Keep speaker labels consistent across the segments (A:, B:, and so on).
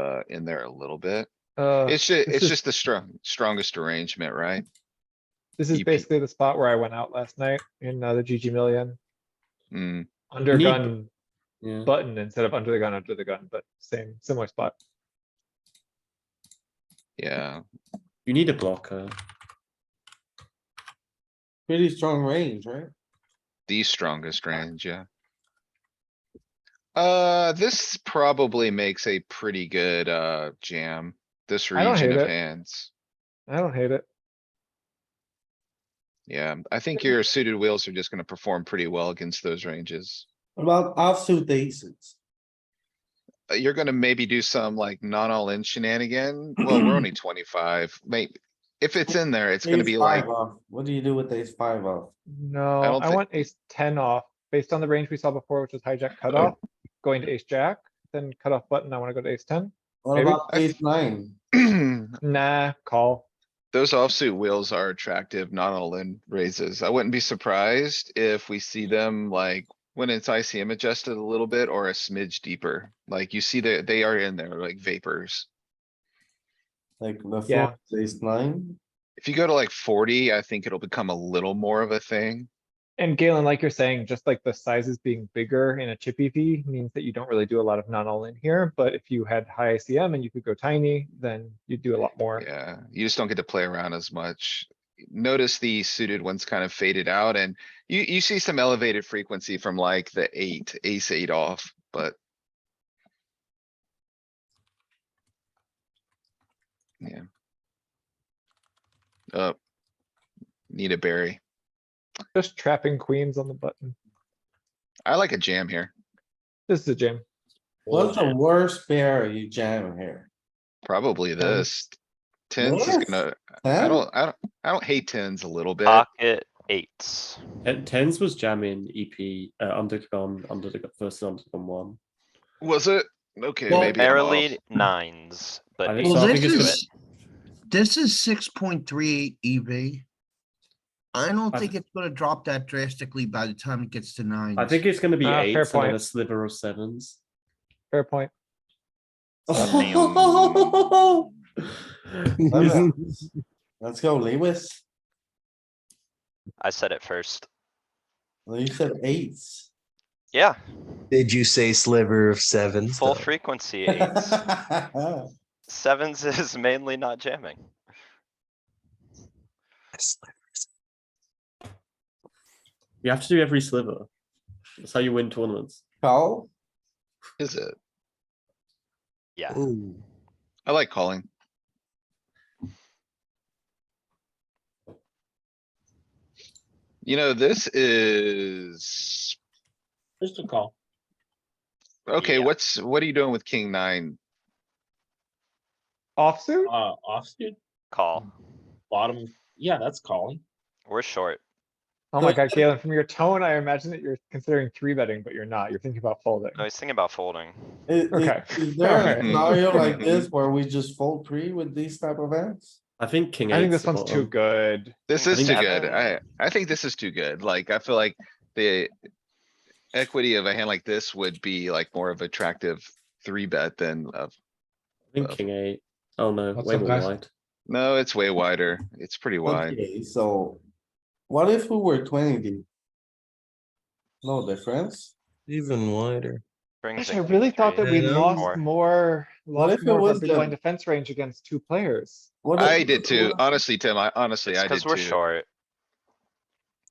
A: uh, in there a little bit.
B: Uh,
A: It's ju-
B: this
A: it's
B: is-
A: just the strong, strongest arrangement, right?
B: this is
A: EP.
B: basically the spot where I went out last night in uh, the GG million.
A: Mm,
B: Under
C: Neat.
B: gun
C: Yeah,
B: button instead of under the gun, under the gun, but same, similar spot.
A: yeah,
C: you need a blocker.
D: Pretty strong range, right?
A: the strongest range, yeah. Uh, this probably makes a pretty good, uh, jam, this
B: I don't
A: region
B: hate
A: of
B: it.
A: hands.
B: I don't hate it.
A: Yeah, I think your suited wheels are just gonna perform pretty well against those ranges.
D: What About offsuit aces.
A: Uh, You're gonna maybe do some like not all in shenanigan. Well, we're only twenty-five, maybe. If it's in there, it's gonna
D: Ace
A: be like,
D: five off. What do you do with ace five off?
B: No,
A: don't
B: I
A: thi-
B: want ace ten off, based on the range we saw before, which was hijack cutoff, going to ace jack, then cutoff button, I wanna go to ace ten.
D: What
B: Maybe.
D: about ace nine?
B: Nah, call.
A: Those offsuit wheels are attractive, not all in raises. I wouldn't be surprised if we see them like when it's ICM adjusted a little bit or a smidge deeper. Like you see that they are in there like vapors.
D: Like the
B: Yeah.
D: four, ace nine?
A: If you go to like forty, I think it'll become a little more of a thing.
B: And Galen, like you're saying, just like the sizes being bigger in a chip EV means that you don't really do a lot of non-all in here, but if you had high ICM and you could go tiny, then you'd do a lot more.
A: Yeah, you just don't get to play around as much. Notice the suited ones kind of faded out and you, you see some elevated frequency from like the eight, ace eight off, but. Yeah. Uh. Need a berry.
B: Just trapping queens on the button.
A: I like a jam here,
B: This is a jam.
D: What's the worst pair you jam here?
A: probably this. Tens is
D: Yes.
A: gonna, I
D: Ten?
A: don't, I don't, I don't hate tens a little bit.
E: Pocket eights.
C: And Uh, tens was jamming EP uh, under the gun, under the gun, versus under the gun one.
A: Was it? Okay,
D: Well,
A: maybe. I'm off.
E: Barely nines,
C: I
E: but
C: think
E: eights
C: so. I
F: Well,
C: think
F: this
E: do
C: it's
E: it.
F: is, this is six point three eight EV. I don't
C: I-
F: think it's gonna drop that drastically by the time it gets to
A: Mm.
F: nine.
C: I think it's going to be
B: Ah, fair
C: eights and then
B: point.
C: a sliver of sevens.
B: Fair point.
C: Isn't-
D: Let's go, Lewis.
E: I said it first.
D: Well, You said eights.
E: Yeah,
G: Did you say sliver of sevens?
E: full
G: though?
E: frequency eights.
D: What
E: Sevens is mainly not jamming.
C: you have to do every sliver. That's how you win tournaments.
D: Call?
A: Is it?
E: Yeah,
G: Ooh.
A: I like calling. You know, this is,
H: Just a call.
A: okay,
E: Yeah.
A: what's, what are you doing with king nine?
B: Offsuit?
H: Uh, offsuit,
E: call.
H: bottom. Yeah, that's calling.
E: We're short.
B: Oh my
D: Like-
B: god, Galen, from your tone, I imagine that you're considering three betting, but you're not. You're thinking about folding.
E: I was thinking about folding.
D: I- i-
B: Okay.
D: Is there a
B: Alright.
D: scenario like this where we just fold three with these type of hands?
C: I think king eight.
B: I think this one's too good.
A: This
E: I
A: is
C: think
A: too
C: that-
A: good. I, I think this is too good. Like, I feel like the equity of a hand like this would be like more of attractive three bet than of,
C: I think king eight. Oh no,
B: What's
C: way
B: up,
C: more
B: guys?
C: wide.
A: no, it's way wider. It's pretty wide.
D: Okay, so what if we were twenty deep? No difference.
G: Even wider.
E: Brings
B: Gosh, I
E: in
B: really
E: king
B: thought that
E: three,
B: we
G: Yeah.
B: lost
E: four.
B: more,
D: if
B: lost
D: it
B: more of
D: was
B: our
D: the-
B: big blind defense range against two players.
D: What
A: I
D: if-
A: did too. Honestly, Tim, I honestly,
E: It's
A: I did
E: cuz we're
A: too.
E: short.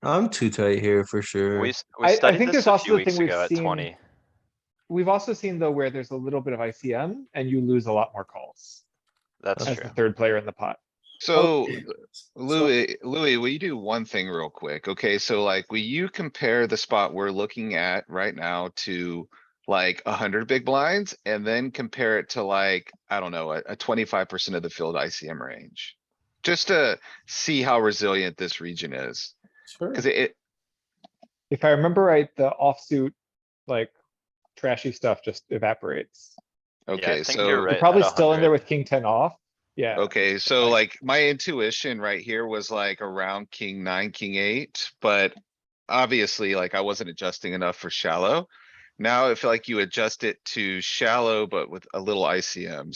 G: I'm too tight here for sure.
E: We, s-
B: I- I
E: we studied
B: think
E: this
B: there's
E: a
B: also
E: few
B: the thing
E: weeks
B: we've
E: ago at
B: seen-
E: twenty.
B: We've also seen though where there's a little bit of ICM and you lose a lot more calls
E: That's
B: as
E: true.
B: the third player in the pot.
E: Oh,
A: So
D: Okay,
A: Louis, Louis, will you do one thing real quick? Okay, so like, will you compare the spot we're looking at right now to like a hundred big blinds and then compare it to like, I don't know, a, twenty-five percent of the field ICM range? Just to see how resilient this region is,
D: Sure.
A: cuz it,
B: If I remember right, the offsuit, like trashy stuff just evaporates.
E: I
A: okay,
E: think
A: so.
E: you're Right,
B: You're
E: at
B: probably still in
E: 100.
B: there with king ten off. Yeah,
A: Okay, so like my intuition right here was like around king nine, king eight, but obviously like I wasn't adjusting enough for shallow. Now I feel like you adjust it to shallow, but with a little ICM,